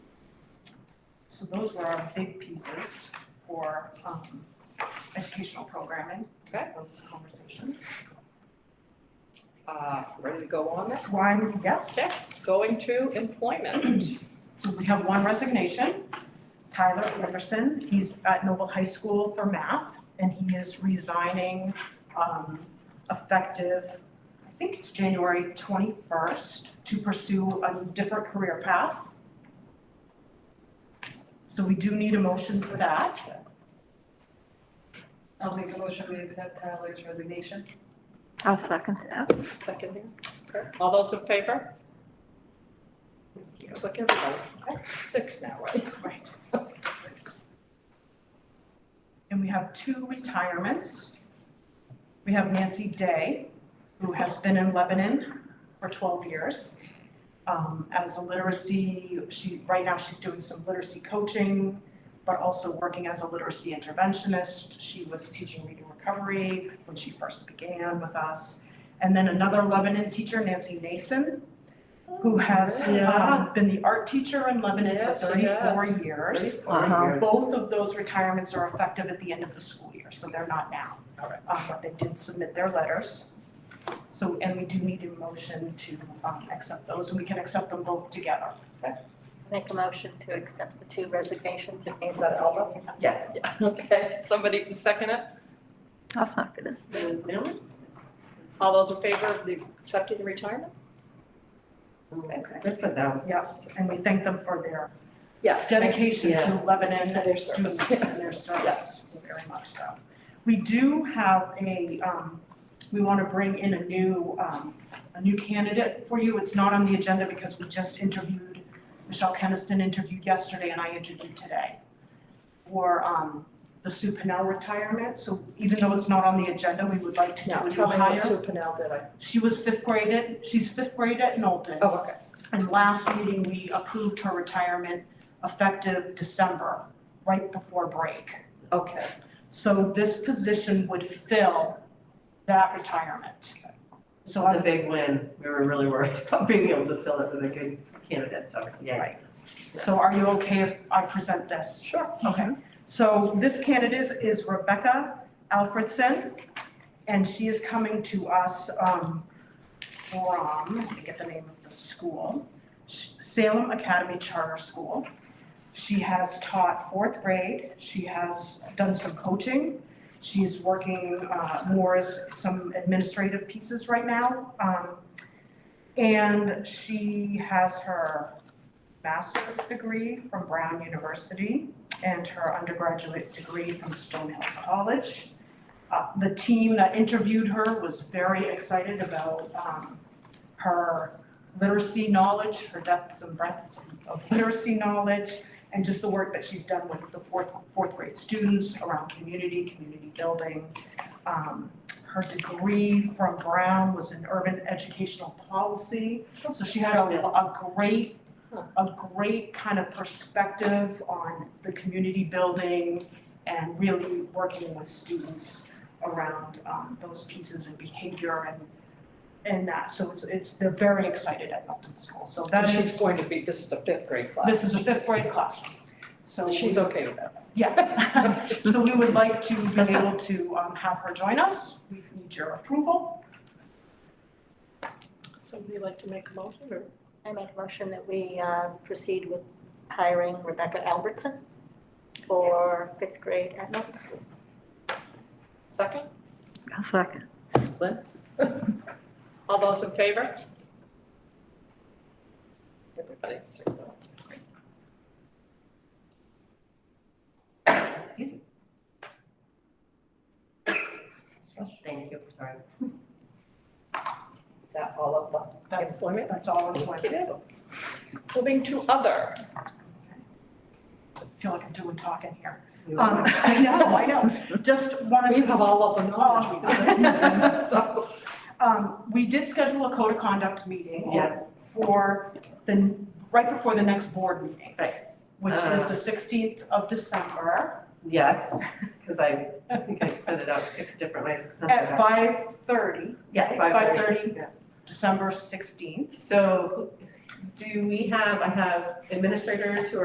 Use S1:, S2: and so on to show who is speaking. S1: So those were our big pieces for um educational programming,
S2: Okay.
S1: those conversations.
S2: Uh, ready to go on that?
S1: Why, yes,
S2: Okay, going to employment.
S1: we have one resignation, Tyler Anderson, he's at Noble High School for math and he is resigning um effective, I think it's January twenty first, to pursue a different career path. So we do need a motion for that.
S3: I'll make a motion to accept Tyler's resignation.
S4: I'll second that.
S2: Second here. Okay. All those in favor? Looks like everybody. Okay, six now, right?
S1: Right. And we have two retirements. We have Nancy Day, who has been in Lebanon for twelve years. um, as a literacy, she, right now she's doing some literacy coaching, but also working as a literacy interventionist. She was teaching reading recovery when she first began with us. And then another Lebanon teacher, Nancy Nason, who has
S2: Yeah.
S1: um, been the art teacher in Lebanon for
S2: Yes, she
S1: thirty-four
S2: has.
S1: years.
S4: Uh-huh.
S1: Both of those retirements are effective at the end of the school year, so they're not now.
S2: Alright.
S1: Um, but they did submit their letters. So, and we do need a motion to, um, accept those, and we can accept them both together.
S5: Make a motion to accept the two resignations.
S3: Is that all of them?
S5: Yes.
S2: Okay, somebody second it?
S4: I'll second it.
S2: Liz Newman? All those in favor of the accepting the retirement?
S1: Okay.
S3: Good for them.
S1: Yep, and we thank them for their
S2: Yes.
S1: dedication to
S3: Yeah.
S1: Lebanon
S2: For
S1: and
S2: their
S1: students
S2: service.
S1: and their service, very much so. We do have a, um, we wanna bring in a new, um, a new candidate for you, it's not on the agenda because we just interviewed, Michelle Keniston interviewed yesterday and I interviewed today for, um, the Sue Pennell retirement, so even though it's not on the agenda, we would like to do a
S2: Now,
S1: new
S2: tell me what
S1: hire.
S2: Sue Pennell did, I,
S1: She was fifth graded, she's fifth grade at Knowlton.
S2: oh, okay.
S1: And last meeting, we approved her retirement effective December, right before break.
S2: Okay.
S1: So this position would fill that retirement. So
S3: It's a
S1: I'm,
S3: big win. We were really worried about being able to fill it with a good candidate, so, yeah.
S1: so are you okay if I present this?
S2: Sure.
S1: Okay, so this candidate is Rebecca Alfredson, and she is coming to us um, from, let me get the name of the school, Salem Academy Charter School. She has taught fourth grade, she has done some coaching, she's working uh, more as some administrative pieces right now. um, And she has her master's degree from Brown University and her undergraduate degree from Stonehill College. Uh, the team that interviewed her was very excited about, um, her literacy knowledge, her depths and breadths of literacy knowledge, and just the work that she's done with the fourth, fourth grade students around community, community building. Um, her degree from Brown was in urban educational policy, so she had a, a great a great kind of perspective on the community building and really working with students around um those pieces and behavior and and that, so it's it's, they're very excited at Milton School, so that
S2: She's
S1: is,
S2: going to be, this is a fifth grade class.
S1: this is a fifth grade classroom. So we-
S2: She's okay with that.
S1: yeah. So we would like to be able to um have her join us, we need your approval.
S2: Somebody like to make a motion or?
S5: I make a motion that we uh, proceed with hiring Rebecca Albertson for fifth grade at Milton School.
S2: Second?
S4: I'll second.
S2: All those in favor? Everybody, six oh.
S3: Excuse me. Thank you, sorry.
S2: that all of them.
S1: That's
S2: Employment.
S1: that's all employment,
S2: Moving to other.
S1: I feel like I'm doing talking here.
S3: You
S1: Um
S3: are-
S1: I know, I know, just Oh. wanted to.
S2: We have all of the knowledge we need. So,
S1: Um, we did schedule a code of conduct meeting
S3: Yes.
S1: for the, right before the next board meeting.
S3: Right.
S1: Which is
S3: Uh.
S1: the sixteenth of December
S3: Yes, because I, I think I sent it out six different ways. It's not
S1: at
S3: that-
S1: five thirty,
S3: Yeah,
S1: five
S3: 5:30.
S1: thirty,
S3: yeah.
S1: December sixteenth.
S3: So do we have, I have administrators who are.